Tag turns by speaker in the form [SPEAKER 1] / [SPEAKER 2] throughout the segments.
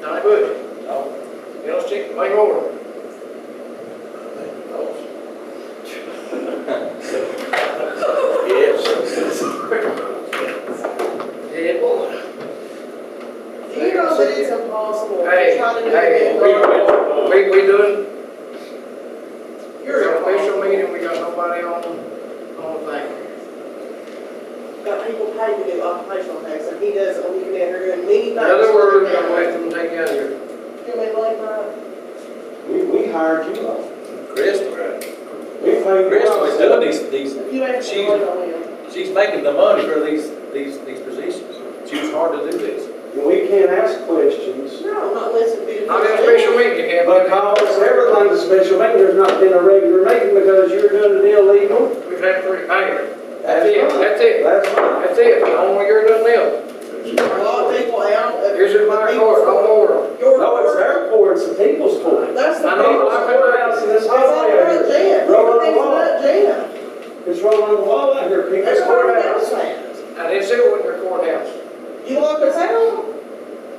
[SPEAKER 1] Johnny Bush. You don't stick to my order. Yeah, boy.
[SPEAKER 2] You know that it's impossible. You're
[SPEAKER 1] Hey,
[SPEAKER 2] trying to do
[SPEAKER 1] hey,
[SPEAKER 2] it.
[SPEAKER 1] we, we, we doing,
[SPEAKER 2] You're
[SPEAKER 1] you're a special
[SPEAKER 2] impossible.
[SPEAKER 1] meeting, we got nobody on, on the thing.
[SPEAKER 2] Got people paying to do occupational tax, and he does a week in there, and many
[SPEAKER 1] In
[SPEAKER 2] nights.
[SPEAKER 1] other words, I'm waiting to take you out of here.
[SPEAKER 2] Do we like that?
[SPEAKER 3] We, we hired you up.
[SPEAKER 4] Crystal, right?
[SPEAKER 3] We paid you
[SPEAKER 4] Crystal
[SPEAKER 3] up.
[SPEAKER 4] is doing these, these,
[SPEAKER 2] If you ain't
[SPEAKER 4] She's-
[SPEAKER 2] going to win.
[SPEAKER 4] she's making the money for these, these, these positions. She was hard to do this.
[SPEAKER 3] And we can't ask questions.
[SPEAKER 2] No, not unless it be.
[SPEAKER 1] Not in a special meeting, you can't.
[SPEAKER 3] Because everything's a special meeting, there's not been a regular meeting because you're doing it illegal.
[SPEAKER 1] We've had three payers. That's it, that's it,
[SPEAKER 3] That's fine.
[SPEAKER 1] that's it, only you're doing them.
[SPEAKER 2] A lot of people out. of-
[SPEAKER 1] Here's your my court, I'm over.
[SPEAKER 2] Your
[SPEAKER 3] No, it's
[SPEAKER 2] court.
[SPEAKER 3] their court, it's the people's court.
[SPEAKER 2] That's the.
[SPEAKER 1] I know.
[SPEAKER 3] People's courthouse in this
[SPEAKER 2] It's all about
[SPEAKER 3] house.
[SPEAKER 2] jam.
[SPEAKER 3] Roll on the
[SPEAKER 2] Everything's
[SPEAKER 3] wall.
[SPEAKER 2] about jam.
[SPEAKER 3] It's rolling on the wall out here, people's
[SPEAKER 2] Everybody knows
[SPEAKER 3] courthouse.
[SPEAKER 2] that.
[SPEAKER 1] I didn't say it wasn't your courthouse.
[SPEAKER 2] You lock us out,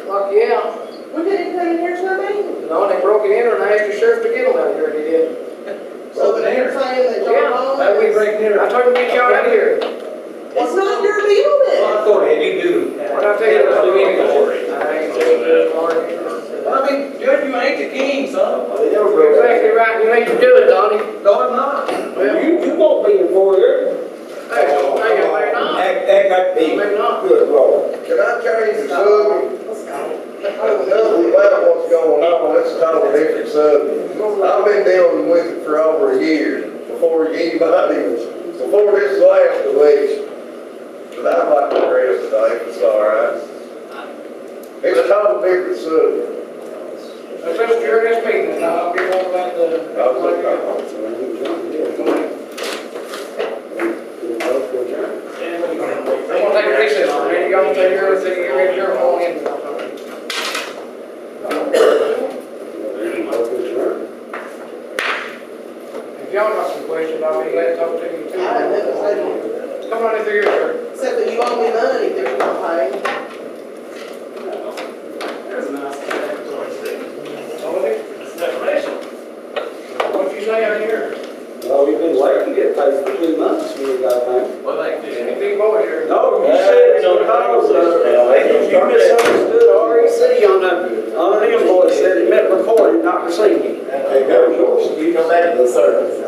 [SPEAKER 1] Lock you out.
[SPEAKER 2] we couldn't come in here to a meeting.
[SPEAKER 1] No, and they broke it in and I asked the sheriff to get them out here and he did.
[SPEAKER 2] So that you're saying that
[SPEAKER 1] Yeah.
[SPEAKER 2] John
[SPEAKER 3] That
[SPEAKER 2] Holland
[SPEAKER 3] we
[SPEAKER 2] is,
[SPEAKER 3] break dinner.
[SPEAKER 1] I told him to get y'all out of here.
[SPEAKER 2] it's not your building.
[SPEAKER 4] Go ahead, you do.
[SPEAKER 1] When I tell you that, I'm leaving. I ain't doing this, Marty.
[SPEAKER 4] I mean, Judge, you ain't the king, son.
[SPEAKER 3] They never
[SPEAKER 1] You're
[SPEAKER 3] broke
[SPEAKER 1] exactly right, you need to do it, Donnie.
[SPEAKER 4] No, I'm not.
[SPEAKER 1] Well,
[SPEAKER 3] You, you won't be in for it.
[SPEAKER 1] hey, hey, may not,
[SPEAKER 5] That, that got
[SPEAKER 1] may
[SPEAKER 5] me.
[SPEAKER 1] not.
[SPEAKER 5] Good Lord.
[SPEAKER 6] Can I change the subject?
[SPEAKER 2] Let's go.
[SPEAKER 6] Nothing about what's going on, that's a totally different subject. I've been dealing with it for over a year, before anybody was, before this last election. But I'd like to address it, I think it's all right. It's a totally different subject.
[SPEAKER 1] I said during this meeting, and I'll be all about the.
[SPEAKER 6] I was like, oh.
[SPEAKER 1] I'm gonna take a recess, man, you gonna take your, take your, your phone in. If y'all got some questions, I'll be glad to talk to you
[SPEAKER 2] I don't know, I
[SPEAKER 1] too.
[SPEAKER 2] don't-
[SPEAKER 1] Come on in through here, sir.
[SPEAKER 2] Except that you owe me money, that you're not paying.
[SPEAKER 1] What'd you say out here?
[SPEAKER 3] Well, we've been waiting to get paid for two months, we got paid.
[SPEAKER 4] Well, like
[SPEAKER 1] Any big boy here?
[SPEAKER 3] No, you said it's because of, you misunderstood REC on the, on an invoice that it meant recorded, not received.
[SPEAKER 5] There goes yours. You go back to the service.